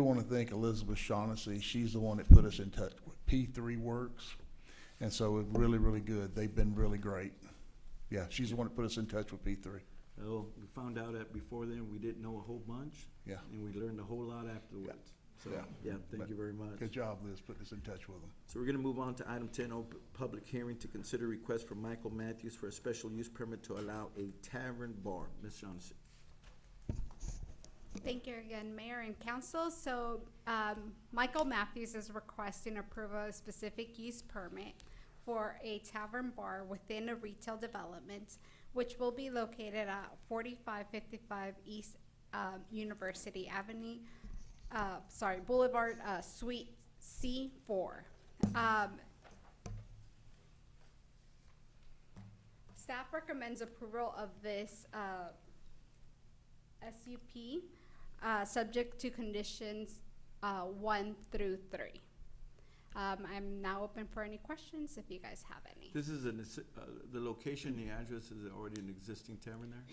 I want to thank Elizabeth Shaughnessy. She's the one that put us in touch with P3 Works. And so it's really, really good. They've been really great. Yeah, she's the one that put us in touch with P3. Well, we found out that before then, we didn't know a whole bunch. Yeah. And we learned a whole lot afterwards. So, Yeah. yeah, thank you very much. Good job, Liz, putting us in touch with them. So we're gonna move on to item ten, open public hearing to consider request from Michael Matthews for a special use permit to allow a tavern bar. Ms. Shaughnessy. Thank you again, Mayor and Council. So, um, Michael Matthews is requesting approval of specific use permit for a tavern bar within a retail development, which will be located at forty-five fifty-five East, um, University Avenue, uh, sorry, Boulevard, uh, Suite C four. Um, staff recommends approval of this, uh, SUP, uh, subject to conditions, uh, one through three. Um, I'm now open for any questions if you guys have any. This is an, uh, the location, the address is already an existing tavern there?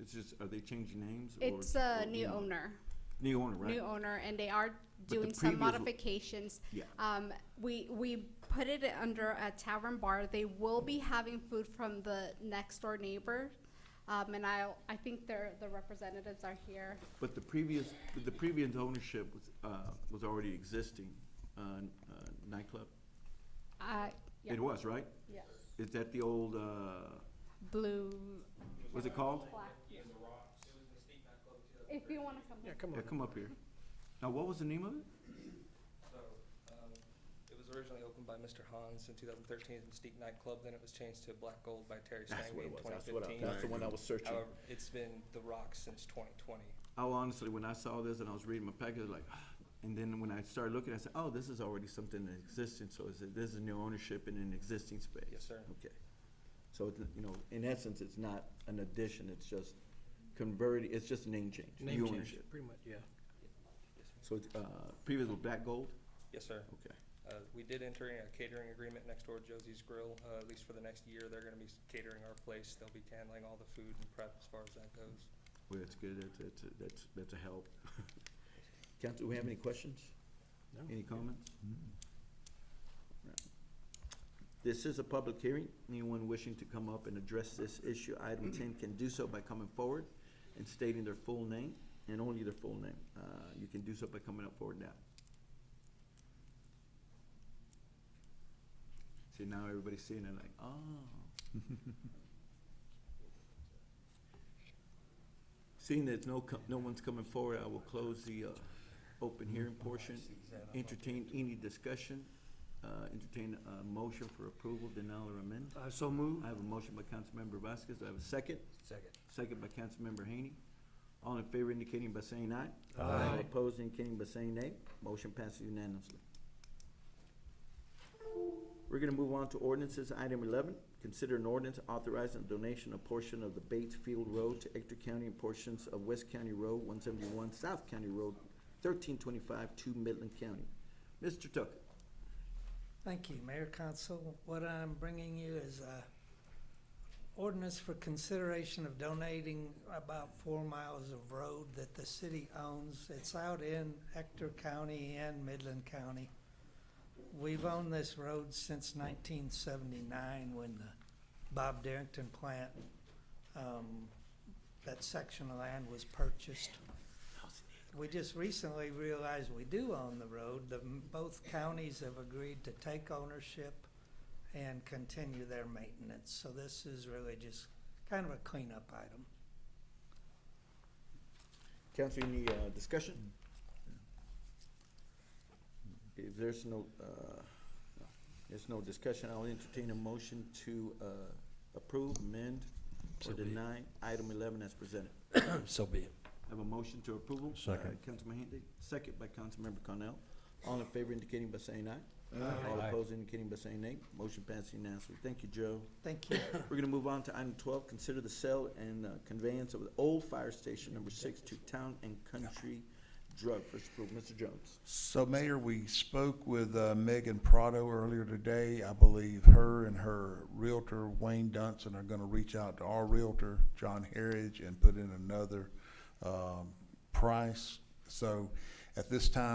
It's just, are they changing names? or- It's a or new owner, New owner, right? new owner, and they are the doing some previous lo- modifications. Yeah. Um, we, we put it under a tavern bar. They will be having food from the next door neighbor. Um, and I, I think their, the representatives are here. But the previous, the previous ownership was, uh, was already existing, uh, uh, nightclub? Uh, yeah, It was, right? yeah. Is that the old, uh, Blue, what's it called? black. If you wanna come. Yeah, come Yeah, on. come up here. Now, what was the name of it? So, um, it was originally opened by Mr. Hans in 2013 as Mystique Nightclub, then it was changed to Black Gold by Terry Stanley in 2015. one I was searching. However, it's been The Rock since 2020. I honestly, when I saw this and I was reading my package, I was like, and then when I started looking, I said, oh, this is already something in existence, so is it, this is new ownership in an existing space? Yes, sir. Okay. So, it's, you know, in essence, it's not an addition, it's just converted, it's just a name change, Name new change, ownership. pretty much, yeah. Yes, ma'am. So, it's, uh, previous was Black Gold? Yes, sir. Okay. Uh, We did enter in a catering agreement next door to Josie's Grill, uh, at least for the next year. They're going to be catering our place. They'll be handling all the food and prep as far as that goes. Well, that's good, that's, that's, that's, that's a help. Council, do we have any questions? No. Any comments? Right. This is a public hearing. Anyone wishing to come up and address this issue, item ten, can do so by coming forward and stating their full name, and only their full name. Uh, you can do so by coming up forward now. See, now everybody's seeing it like, oh. Seeing there's no, co- no one's coming forward, I will close the uh, open hearing portion. Entertain any discussion, uh, entertain a motion for approval, denial, or amend. I so move. I have a motion by Councilmember Vasquez, Do I have a second. Second. Second by Councilmember Haney. All in favor indicating by saying aye. Aye. All Opposed indicating by saying nay. Motion passes unanimously. We're gonna move on to ordinances. Item eleven, consider an ordinance authorizing donation of portion of the Bates Field Road to Ector County and portions of West County Road one seventy-one, South County Road thirteen twenty-five to Midland County. Mr. Tucker, Thank you, Mayor Council. What I'm bringing you is a ordinance for consideration of donating about four miles of road that the city owns. It's out in Hector County and Midland County. We've owned this road since nineteen seventy-nine when the Bob Darrington plant, um, that section of land was purchased. We just recently realized we do own the road. The, both counties have agreed to take ownership and continue their maintenance. So this is really just kind of a cleanup item. council, any, uh, discussion? If there's no, uh, no, there's no discussion, I'll entertain a motion to, uh, approve, amend, So or be it. deny item eleven as presented. So be it. Have a motion to approval? Second. by Councilman Handy, second by Councilmember Cornell. All in favor indicating by saying aye. All opposed indicating by saying nay. Motion passed unanimously. Thank you, Joe. Thank you. We're gonna move on to item twelve, consider the sale and uh, conveyance of the old fire station number six to Town and Country Drug. First approval, Mr. Jones. So Mayor, we spoke with uh, Megan Prado earlier today. I believe her and her Realtor, Wayne Dunson, are gonna reach out to our Realtor, John Harridge, and put in another, um, price. So at this time,